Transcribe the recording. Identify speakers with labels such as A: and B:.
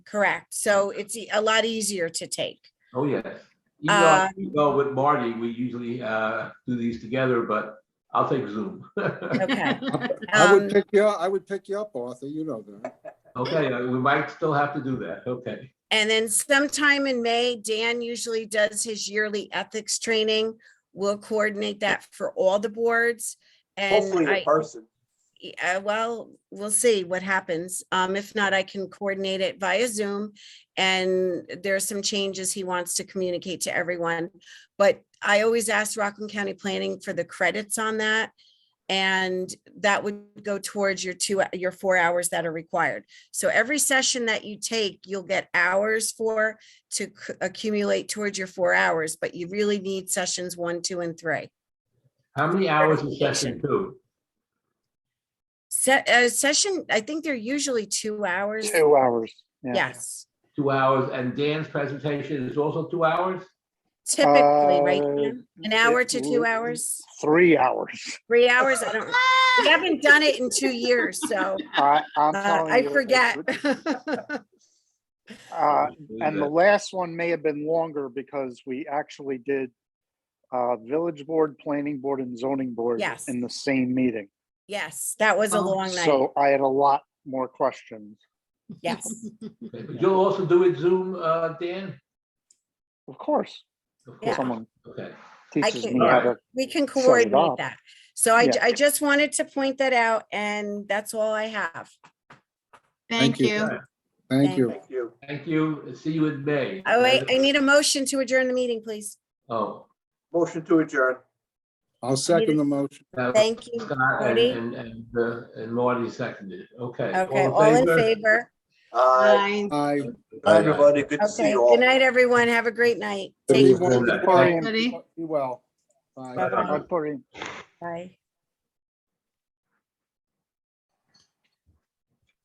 A: Correct. So it's e- a lot easier to take.
B: Oh, yes. Even though
A: Um,
B: I usually go with Marty, we usually uh, do these together, but I'll take Zoom.
A: Okay.
C: I
A: Um,
C: would pick you, up- I would pick you up, Arthur, you know that.
B: Okay, uh, we might still have to do that. Okay.
A: And then sometime in May, Dan usually does his yearly ethics training. We'll coordinate that for all the boards.
D: Hopefully
A: And
D: in
A: I,
D: person.
A: uh, well, we'll see what happens. Um, if not, I can coordinate it via Zoom. And there are some changes he wants to communicate to everyone. But I always ask Rockland County Planning for the credits on that. And that would go towards your two, your four hours that are required. So every session that you take, you'll get hours for to c- accumulate towards your four hours, but you really need sessions one, two, and three.
B: How many hours is session two?
A: Se- uh, session, I think they're usually two hours.
D: Two hours. yeah.
A: Yes,
B: Two hours, and Dan's presentation is also two hours?
A: typically, right?
D: Uh,
A: Dan? An hour to two
D: it-
A: hours,
D: Three hours.
A: three hours, I don't, we haven't done it in two years, so
D: I, I'm
A: uh,
D: telling you.
A: I
D: it
A: forget.
D: would- Uh, And the
B: Yeah.
D: last one may have been longer because we actually did uh, village board, planning board and zoning board
A: Yes.
D: in the same meeting.
A: Yes, that was a
E: Oh,
A: long night,
D: So I had a lot more questions.
A: yes.
B: Okay, but You'll also do it Zoom, uh, Dan?
D: Of course,
B: Of
A: Yeah.
B: course.
D: someone
B: Okay.
D: teaches
A: can-
D: me how to,
A: We can
D: Set it
A: coordinate
D: up.
A: that. So I,
D: Yeah.
A: I just wanted to point that out, and that's all I have.
C: Thank
E: Thank
C: you.
E: you.
C: Thank you.
D: thank you.
B: Thank you. See you in May.
A: Oh, wait, I need a motion to adjourn the meeting, please.
B: Oh.
D: Motion to adjourn.
C: I'll second the motion.
B: that was
A: Thank you.
B: Scott and-
A: Marty.
B: And, and, uh, and Marty seconded. Okay.
A: Okay, all in favor?
D: Hi,
E: Bye.
C: Aye.
B: Bye,
D: everybody. Good to see
A: Uh, Okay,
D: you all.
A: good night, everyone. Have a great night. Take
C: Be
A: care.
C: well.
D: Good morning.
C: Be well. Bye.
B: Bye-bye.
D: Good morning.
A: Bye.